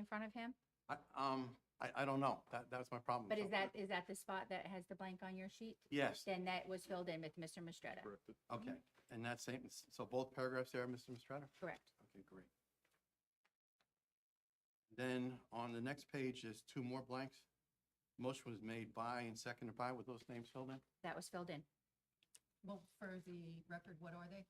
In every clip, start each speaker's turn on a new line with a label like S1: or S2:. S1: in front of him?
S2: I, um, I, I don't know. That, that's my problem.
S1: But
S2: So-
S1: is that, is that the spot that has the blank on your sheet?
S2: Yes,
S1: Then that was filled in with Mr. Mistretta,
S2: okay. And that's same, so both paragraphs there, Mr. Mistrata?
S1: correct?
S2: Okay, great. Then on the next page is two more blanks. Motion was made by and seconded by with those names filled in.
S1: That was filled in.
S3: Well, for the record, what are they?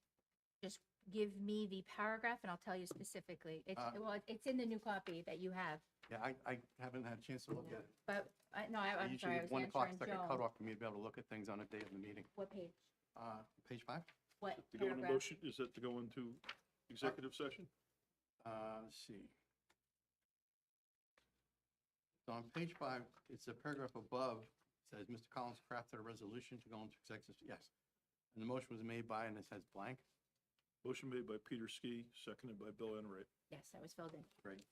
S1: Give me the paragraph and I'll tell you specifically. It's,
S2: Uh.
S1: well, it's in the new copy that you have,
S2: Yeah, I, I haven't had a chance to look at it.
S1: but, uh, no, I-
S2: I
S1: I'm
S2: Usually
S1: sorry, I
S2: at
S1: was
S2: one o'clock,
S1: answering
S2: it's like a
S1: Joan.
S2: cutoff for me to be able to look at things on a day of the meeting.
S1: What page?
S2: Uh, page five?
S1: What
S4: To go into
S1: paragraph?
S4: motion, is that to go into executive session?
S2: Uh, let's see. So on page five, it's a paragraph above, says Mr. Collins crafted a resolution to go into executive, yes. And the motion was made by, and it says blank,
S4: Motion made by Peter Ski, seconded by Bill Enright.
S1: Yes, that was filled in.
S2: great.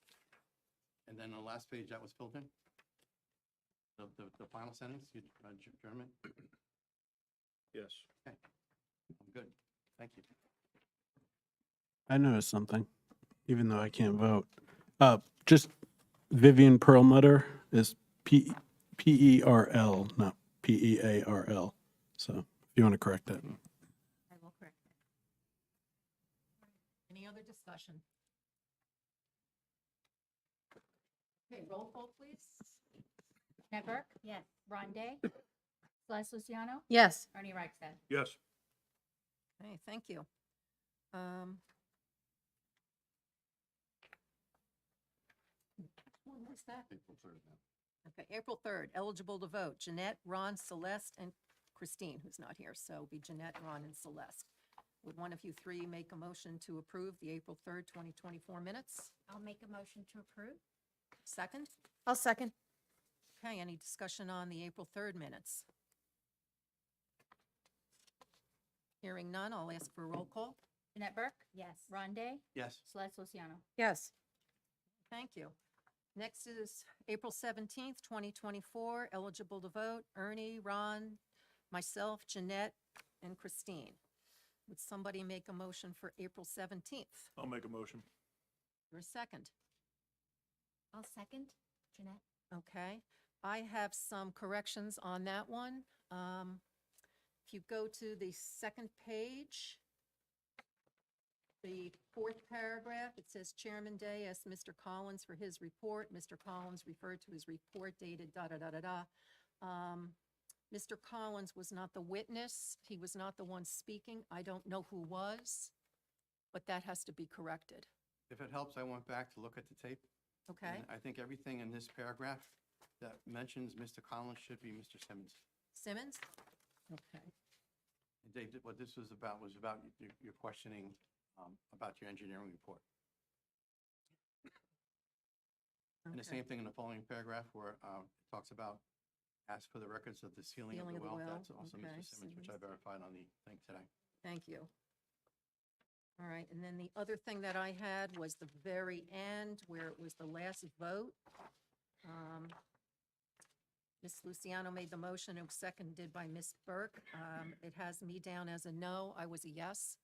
S2: And then the last page, that was filled in? The, the, the final sentence, you, uh, Ger- German,
S4: Yes.
S2: I'm good, thank you.
S5: I noticed something, even though I can't vote. Uh, just Vivian Perlmutter is P, P E R L, not P E A R L. So if you want to correct that.
S1: I will correct that.
S3: Any other discussion? Okay, roll call, please.
S1: Matt Burke? Yes. Ron Day? Celeste Luciano?
S6: Yes.
S1: Ernie Reichstad?
S4: Yes.
S3: Okay, thank you. Um, When was that? Okay, April 3rd, eligible to vote, Jeanette, Ron, Celeste, and Christine, who's not here, so it'll be Jeanette, Ron, and Celeste. Would one of you three make a motion to approve the April 3rd, 2024 minutes?
S1: I'll make a motion to approve.
S3: Second?
S6: I'll second.
S3: Okay, any discussion on the April 3rd minutes? Hearing none, I'll ask for a roll call.
S1: Jeanette Burke? Yes. Ron Day?
S2: Yes,
S1: Celeste Luciano?
S6: Yes.
S3: Thank you. Next is April 17th, 2024, eligible to vote, Ernie, Ron, myself, Jeanette, and Christine. Would somebody make a motion for April 17th?
S4: I'll make a motion.
S3: Your second,
S1: I'll second. Jeanette?
S3: okay? I have some corrections on that one. Um, If you go to the second page, the fourth paragraph, it says Chairman Day asked Mr. Collins for his report. Mr. Collins referred to his report dated da-da-da-da-da. Um, Mr. Collins was not the witness. He was not the one speaking. I don't know who was, but that has to be corrected,
S2: if it helps, I went back to look at the tape. and
S3: okay?
S2: I think everything in this paragraph that mentions Mr. Collins should be Mr. Simmons.
S3: Simmons? Okay.
S2: And Dave, th- what this was about was about y- your, your questioning um, about your engineering report. And the
S3: okay.
S2: same thing in the following paragraph where um, it talks about, as for the records of the sealing of the
S3: Sealing
S2: well.
S3: of the well,
S2: That's also
S3: okay,
S2: Mr. Simmons, which I
S3: Simmons.
S2: verified on the thing today.
S3: Thank you. All right, and then the other thing that I had was the very end where it was the last vote. Um, Ms. Luciano made the motion, it was seconded by Ms. Burke. Um, It has me down as a no, I was a yes.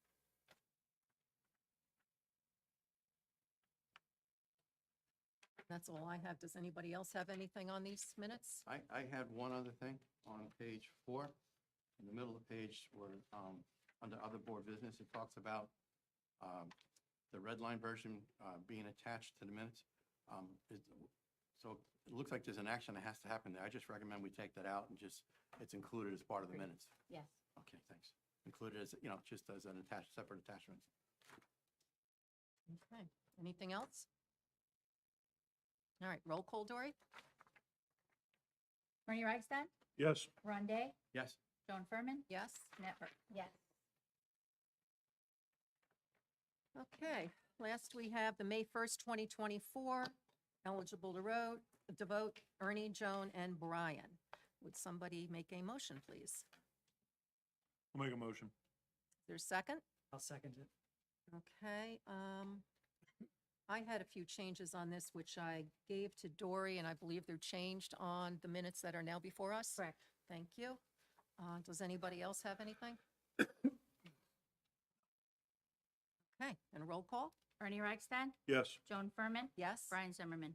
S3: That's all I have. Does anybody else have anything on these minutes?
S2: I, I had one other thing on page four, in the middle of the page where, um, under other board business, it talks about, um, the red line version, uh, being attached to the minutes. Um, it, so it looks like there's an action that has to happen there. I just recommend we take that out and just, it's included as part of the minutes.
S1: Yes.
S2: Okay, thanks. Included as, you know, just as an attached, separate attachment.
S3: Okay, anything else? All right, roll call, Dory?
S1: Ernie Reichstad?
S4: Yes.
S1: Ron Day?
S2: Yes,
S1: Joan Furman?
S3: Yes?
S1: Jeanette Burke? Yes.
S3: Okay, last we have the May 1st, 2024, eligible to vote, to vote Ernie, Joan, and Brian. Would somebody make a motion, please?
S4: I'll make a motion.
S3: There's second?
S7: I'll second it.
S3: Okay, um, I had a few changes on this, which I gave to Dory, and I believe they're changed on the minutes that are now before us.
S1: Correct.
S3: Thank you. Uh, does anybody else have anything? Okay, and a roll call?
S1: Ernie Reichstad,
S4: Yes.
S1: Joan Furman,
S3: Yes?
S1: Brian Zimmerman.